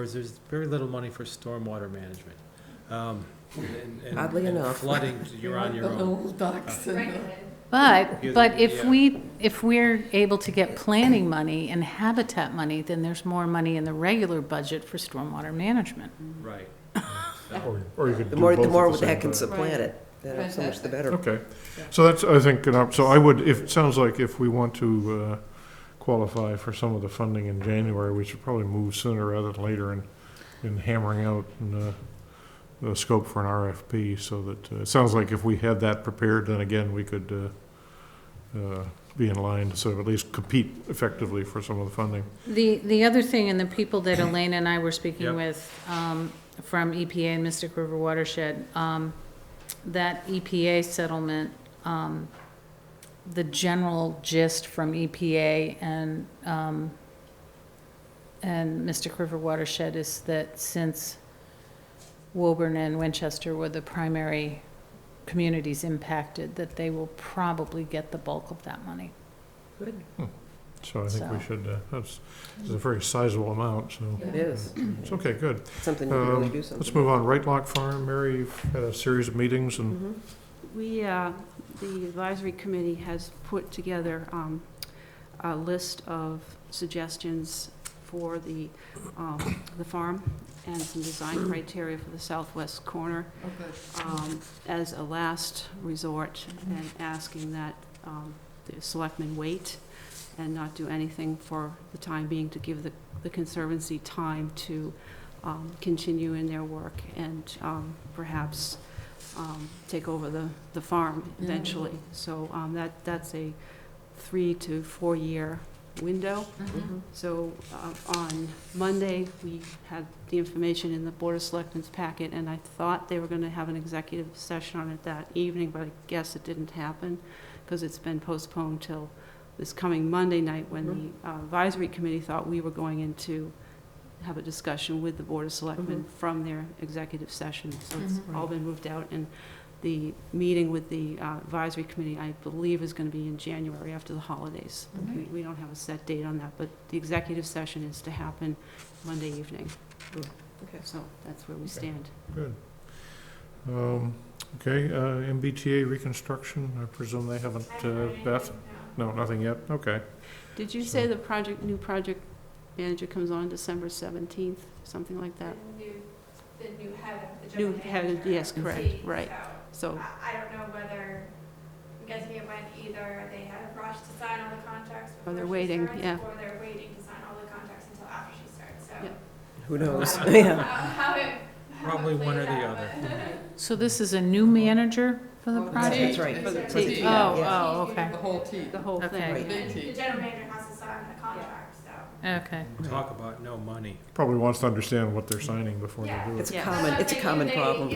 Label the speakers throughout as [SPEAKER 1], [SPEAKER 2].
[SPEAKER 1] Whereas there's very little money for stormwater management. Um, and- and-
[SPEAKER 2] Oddly
[SPEAKER 1] and
[SPEAKER 2] enough.
[SPEAKER 1] Flooding, you're on your own. Yeah,
[SPEAKER 3] But, but if
[SPEAKER 1] yeah.
[SPEAKER 3] we, if we're able to get planning money and habitat money, then there's more money in the regular budget for stormwater management.
[SPEAKER 1] Right.
[SPEAKER 4] Or or you could
[SPEAKER 2] The
[SPEAKER 4] do
[SPEAKER 2] more,
[SPEAKER 4] both
[SPEAKER 2] the
[SPEAKER 4] at
[SPEAKER 2] more
[SPEAKER 4] same
[SPEAKER 2] that can
[SPEAKER 4] time.
[SPEAKER 2] supplant it, then so much the better.
[SPEAKER 4] Okay, so that's, I think, an op- so I would, if, it sounds like if we want to uh, qualify for some of the funding in January, we should probably move sooner rather than later in, in hammering out uh, the scope for an RFP, so that, uh, it sounds like if we had that prepared, then again, we could uh, uh, be in line to sort of at least compete effectively for some of the funding.
[SPEAKER 3] The, the other thing, and the people that Elaine and I were
[SPEAKER 1] Yep.
[SPEAKER 3] speaking with, um, from EPA and Mystic River Watershed, um, that EPA settlement, um, the general gist from EPA and, um, and Mystic River Watershed is that since Woburn and Winchester were the primary communities impacted, that they will probably get the bulk of that money.
[SPEAKER 4] So I think
[SPEAKER 3] So.
[SPEAKER 4] we should, uh, that's, it's a very sizable amount, so,
[SPEAKER 2] It is,
[SPEAKER 4] it's okay, good.
[SPEAKER 2] something you can really
[SPEAKER 4] Um,
[SPEAKER 2] do
[SPEAKER 4] Let's
[SPEAKER 2] something.
[SPEAKER 4] move on. Right Lock Farm, Mary, you've had a series of meetings and,
[SPEAKER 2] Mhm.
[SPEAKER 5] We, uh, Mm-hmm. the advisory committee has put together um, a list of suggestions for the, um, the farm and some design criteria for the southwest corner um, as a last resort and asking that um, the selectmen wait and not do anything for the time being to give the the Conservancy time to um, continue in their work and um, perhaps um, take over the, the farm
[SPEAKER 3] Yeah.
[SPEAKER 5] eventually. So um, that, that's a three to four-year window.
[SPEAKER 6] Mm-hmm.
[SPEAKER 2] Mhm.
[SPEAKER 5] So uh, on Monday, we had the information in the Board of Selectmen's packet, and I thought they were going to have an executive session on it that evening, but I guess it didn't happen because it's been postponed till this coming Monday night when the uh, advisory committee thought we were going in to have a discussion with the Board of Selectmen from their executive session. So it's
[SPEAKER 3] Mhm.
[SPEAKER 5] all been moved out, and the meeting with the uh, advisory committee, I believe, is going to be in January after the holidays.
[SPEAKER 3] Okay.
[SPEAKER 5] We- We don't have a set date on that, but the executive session is to happen Monday evening.
[SPEAKER 2] Okay.
[SPEAKER 5] So that's where we
[SPEAKER 4] Okay.
[SPEAKER 5] stand.
[SPEAKER 4] good. Um, Okay, uh, MBTA reconstruction, I presume they haven't, uh, Beth? No, nothing yet? Okay.
[SPEAKER 5] Did you say the project, new project manager comes on December 17th, something like that? The new head of the Yes, correct, right. So I don't know whether, I'm guessing it went either they had a rush to sign all the contracts before Oh, waiting, yeah.
[SPEAKER 2] Who knows? Yeah.
[SPEAKER 1] Probably one or the other.
[SPEAKER 3] So this is a new manager for the project?
[SPEAKER 2] Oh, That's right.
[SPEAKER 5] For the
[SPEAKER 2] For
[SPEAKER 5] team.
[SPEAKER 2] the team,
[SPEAKER 3] Oh,
[SPEAKER 2] yeah.
[SPEAKER 3] oh, okay,
[SPEAKER 5] The whole
[SPEAKER 3] Okay.
[SPEAKER 5] thing.
[SPEAKER 3] okay.
[SPEAKER 1] Talk about no money.
[SPEAKER 4] Probably wants to understand what they're signing before they do
[SPEAKER 2] It's
[SPEAKER 4] it.
[SPEAKER 2] a
[SPEAKER 5] Yeah.
[SPEAKER 2] common, it's a common problem.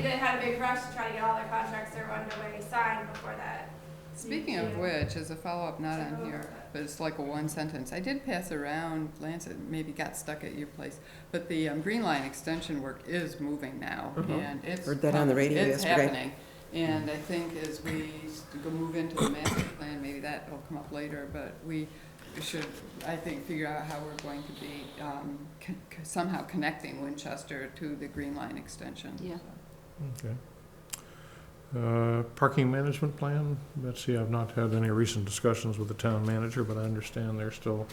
[SPEAKER 6] Speaking of which, as a follow-up, not on here, but it's like a one sentence, I did pass around, Lance, it maybe got stuck at your place, but the um, Green Line extension work is moving now,
[SPEAKER 2] Mhm.
[SPEAKER 6] and it's.
[SPEAKER 2] Heard that on the radio
[SPEAKER 6] it's
[SPEAKER 2] yesterday.
[SPEAKER 6] happening. And I think as we s- go move into the master plan, maybe that'll come up later, but we should, I think, figure out how we're going to be um, con- con- somehow connecting Winchester to the Green Line extension.
[SPEAKER 5] Yeah.
[SPEAKER 6] so.
[SPEAKER 4] Okay. Uh, Parking management plan, Betsy, I've not had any recent discussions with the town manager, but I understand they're still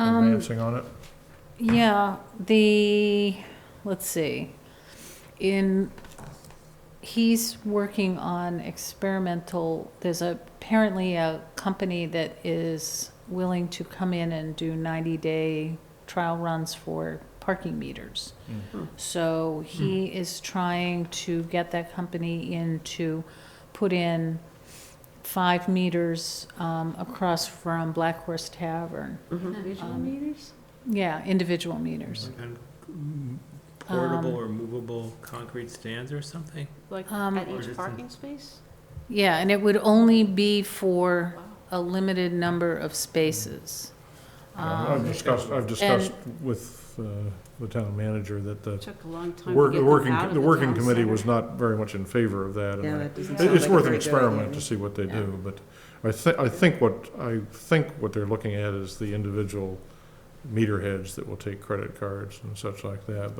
[SPEAKER 3] Um,
[SPEAKER 4] advancing on it.
[SPEAKER 3] yeah, the, let's see, in, he's working on experimental, there's a- apparently a company that is willing to come in and do ninety-day trial runs for parking meters. So he is trying to get that company in to put in five meters um, across from Black Horse Tavern.
[SPEAKER 2] Mm-hmm.
[SPEAKER 5] Visual
[SPEAKER 3] Um,
[SPEAKER 5] meters?
[SPEAKER 3] Yeah, individual meters.
[SPEAKER 1] And mm, Portable or movable concrete stands or something?
[SPEAKER 5] Like
[SPEAKER 3] um,
[SPEAKER 5] at
[SPEAKER 1] Or is it-
[SPEAKER 5] each parking space?
[SPEAKER 3] Yeah, and it would only be for
[SPEAKER 5] Wow.
[SPEAKER 3] a limited number of spaces.
[SPEAKER 4] Um, I've
[SPEAKER 3] Um,
[SPEAKER 4] discussed, I've discussed with uh, the town manager that the
[SPEAKER 5] Took a long time to
[SPEAKER 4] Work,
[SPEAKER 5] get
[SPEAKER 4] the
[SPEAKER 5] them out
[SPEAKER 4] working,
[SPEAKER 5] of
[SPEAKER 4] the working
[SPEAKER 5] town
[SPEAKER 4] committee
[SPEAKER 5] center.
[SPEAKER 4] was not very much in favor of that. and
[SPEAKER 2] Yeah,
[SPEAKER 4] I-
[SPEAKER 2] that doesn't
[SPEAKER 4] it-
[SPEAKER 2] sound
[SPEAKER 4] It's
[SPEAKER 2] like a
[SPEAKER 4] worth an
[SPEAKER 2] very good idea
[SPEAKER 4] experiment
[SPEAKER 2] to
[SPEAKER 4] to
[SPEAKER 2] me.
[SPEAKER 4] see what they
[SPEAKER 6] Yeah.
[SPEAKER 4] do, but I thi, I think what, I think what they're looking at is the individual meter heads that will take credit cards and such like that,